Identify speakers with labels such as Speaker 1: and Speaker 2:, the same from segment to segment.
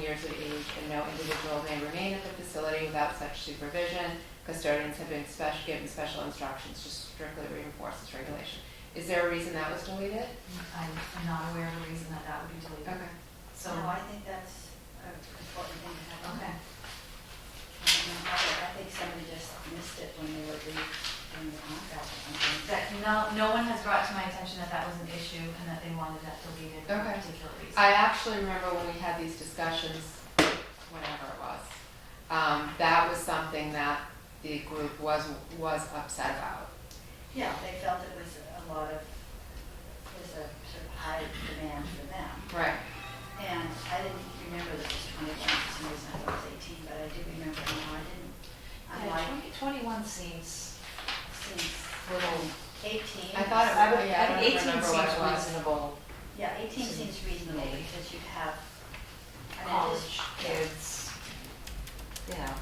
Speaker 1: years of age, and no individual may remain at the facility without such supervision. Custodians have been special, given special instructions to strictly reinforce this regulation. Is there a reason that was deleted?
Speaker 2: I'm I'm not aware of a reason that that would be deleted. So,
Speaker 3: So I think that's an important thing to have.
Speaker 2: okay.
Speaker 3: I don't know how they- I think somebody just missed it when they were reading the contract or something.
Speaker 2: That, no, no one has brought to my attention that that was an issue and that they wanted that deleted for a
Speaker 1: Okay.
Speaker 2: particular reason.
Speaker 1: I actually remember when we had these discussions, whenever it was, um, that was something that the group was, was upset about.
Speaker 3: Yeah, they felt it was a lot of, was a sort of high demand for them.
Speaker 1: Right.
Speaker 3: And I didn't remember that it was 21, for some reason I thought it was 18, but I do remember now, I didn't. I'm
Speaker 2: Yeah,
Speaker 3: like,
Speaker 2: 20 21 seems
Speaker 3: since
Speaker 2: little,
Speaker 3: 18.
Speaker 1: I thought it
Speaker 2: I would,
Speaker 1: Yeah, I
Speaker 2: I
Speaker 1: don't
Speaker 2: think 18
Speaker 1: remember what it
Speaker 2: seems
Speaker 1: was.
Speaker 2: reasonable.
Speaker 3: Yeah, 18 seems reasonable
Speaker 2: Maybe.
Speaker 3: because you have. I mean, it is-
Speaker 2: College kids, you know,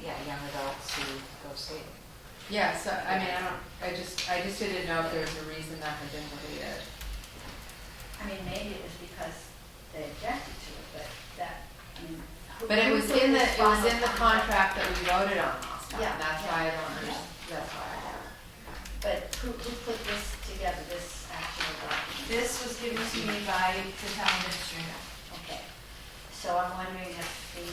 Speaker 2: yeah, young adults who go skating.
Speaker 1: Yeah, so, I mean, I don't, I just, I just didn't know if there was a reason that had been deleted.
Speaker 3: I mean, maybe it was because they objected to it, but that, I mean. who-
Speaker 1: But it
Speaker 3: who
Speaker 1: was
Speaker 3: put
Speaker 1: in the,
Speaker 3: this
Speaker 1: it was
Speaker 3: final
Speaker 1: in the contract that we voted on last time,
Speaker 3: Yeah,
Speaker 1: that's
Speaker 3: yeah.
Speaker 1: why I don't understand, that's why.
Speaker 3: But who, who put this together, this actual document?
Speaker 2: This was given to me by the town administrator.
Speaker 3: Okay. So I'm wondering if the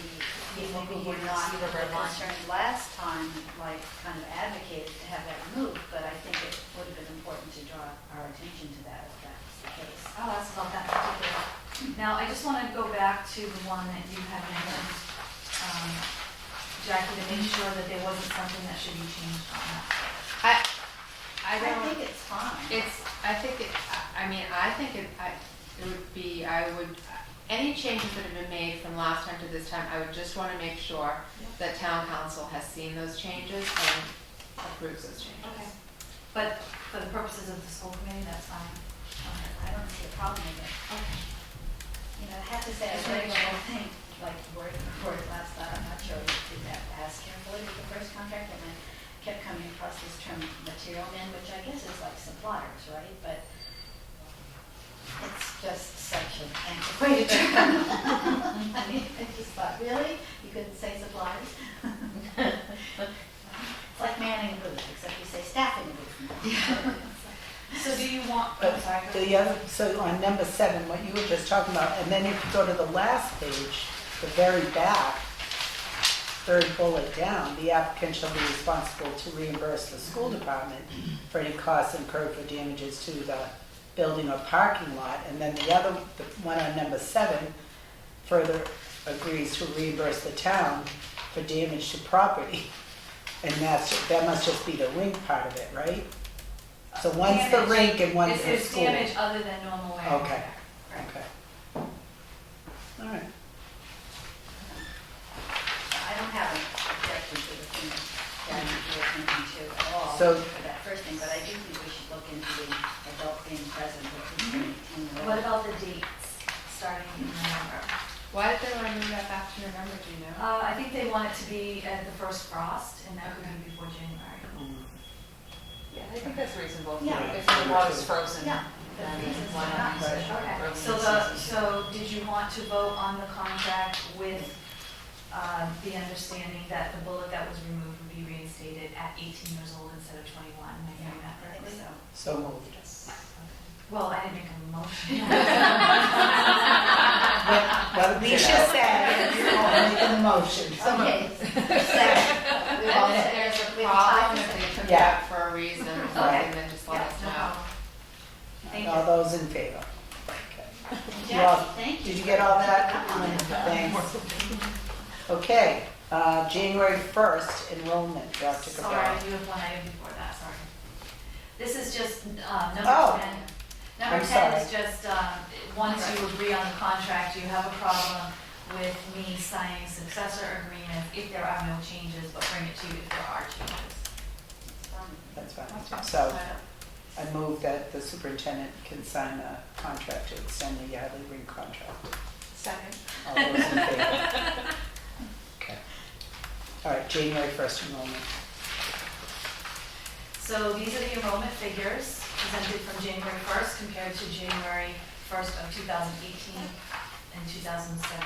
Speaker 3: people who
Speaker 2: Maybe
Speaker 3: were
Speaker 2: you
Speaker 3: not
Speaker 2: see the red line.
Speaker 3: concerned last time, like, kind of advocated to have that removed, but I think it would have been important to draw our attention to that if that's the case.
Speaker 2: Oh, that's about that particular. Now, I just want to go back to the one that you had mentioned, um, Jackie, to make sure that there wasn't something that should be changed on that.
Speaker 1: I, I
Speaker 3: I
Speaker 1: don't,
Speaker 3: think it's fine.
Speaker 1: it's, I think, it. I- I mean, I think it, I, it would be, I would, any changes that have been made from last time to this time, I would just want to make sure that town council has seen those changes and approves those
Speaker 2: Okay.
Speaker 1: changes.
Speaker 2: But for the purposes of the school committee, that's fine.
Speaker 3: I don't see a problem with it.
Speaker 2: Okay.
Speaker 3: You know, I have to say, I read the whole thing, like, word for word last night, I'm not sure we did that as carefully with the first contract, and I kept coming across this term material men, which I guess is like suppliers, right? But it's just such an antiquated term. I mean, I just thought, really? You couldn't say suppliers? It's like manning a booth, except you say staffing a booth.
Speaker 2: So do you want, I'm
Speaker 4: But
Speaker 2: sorry. go ahead.
Speaker 4: the other, so on number seven, what you were just talking about, and then if you go to the last page, the very back, third bullet down, the applicant shall be responsible to reimburse the school department for any costs incurred for damages to the building or parking lot. And then the other, the one on number seven, further agrees to reimburse the town for damage to property. And that's, that must just be the rink part of it, right? So one's the
Speaker 2: Damage.
Speaker 4: rink and one's the
Speaker 2: Is
Speaker 4: school.
Speaker 2: there damage other than normal wear? and
Speaker 4: Okay.
Speaker 2: tear?
Speaker 4: Okay. All right.
Speaker 3: I don't have an objection to the thing that you're thinking to at all
Speaker 4: So-
Speaker 3: for that first thing, but I do think we should look into the adult being present with the
Speaker 2: What
Speaker 3: 18-year-old.
Speaker 2: about the dates, starting in November?
Speaker 1: Why did they want to move that back to November, do you know?
Speaker 2: Uh, I think they want it to be at the first frost, and that would be before January.
Speaker 5: Yeah, I think that's reasonable.
Speaker 3: Yeah.
Speaker 5: If the water's frozen,
Speaker 3: Yeah.
Speaker 5: then why not use it?
Speaker 2: Okay,
Speaker 5: Or
Speaker 2: so
Speaker 5: use
Speaker 2: the,
Speaker 5: it.
Speaker 2: so did you want to vote on the contract with uh, the understanding that the bullet that was removed would be reinstated at 18 years old instead of 21? Am I hearing that
Speaker 3: I think
Speaker 2: correctly?
Speaker 3: so.
Speaker 4: So moved.
Speaker 2: Well, I didn't make a motion.
Speaker 4: Well, Alicia said, I'll make a motion.
Speaker 3: Okay. Second. We
Speaker 1: Well,
Speaker 3: all
Speaker 1: if
Speaker 3: said-
Speaker 1: there's a
Speaker 3: we all
Speaker 1: problem,
Speaker 3: talked
Speaker 1: if they took it
Speaker 4: Yeah.
Speaker 1: out for a reason or
Speaker 2: Okay.
Speaker 1: something, then just let
Speaker 2: Yeah,
Speaker 1: us
Speaker 2: no
Speaker 1: know.
Speaker 2: problem. Thank you.
Speaker 4: All those in favor?
Speaker 3: about-
Speaker 4: You all-
Speaker 3: Jackie, thank you.
Speaker 4: Did you get all that? Thanks. Okay, uh, January 1st enrollment, Dr.
Speaker 2: Sorry,
Speaker 4: Cabral.
Speaker 2: you have one item before that, sorry. This is just uh,
Speaker 4: Oh.
Speaker 2: number 10. Number
Speaker 4: I'm
Speaker 2: 10 is just, uh, once you agree on the contract, you have a problem with me signing successor agreement if there are no changes, but bring it to you if there are changes.
Speaker 4: That's fine. So I move that the superintendent can sign a contract to extend the Yardley Rink contract.
Speaker 2: Second.
Speaker 4: All those in favor? Okay. All right, January 1st enrollment.
Speaker 2: So these are the enrollment figures presented from January 1st compared to January 1st of 2018 and 2017.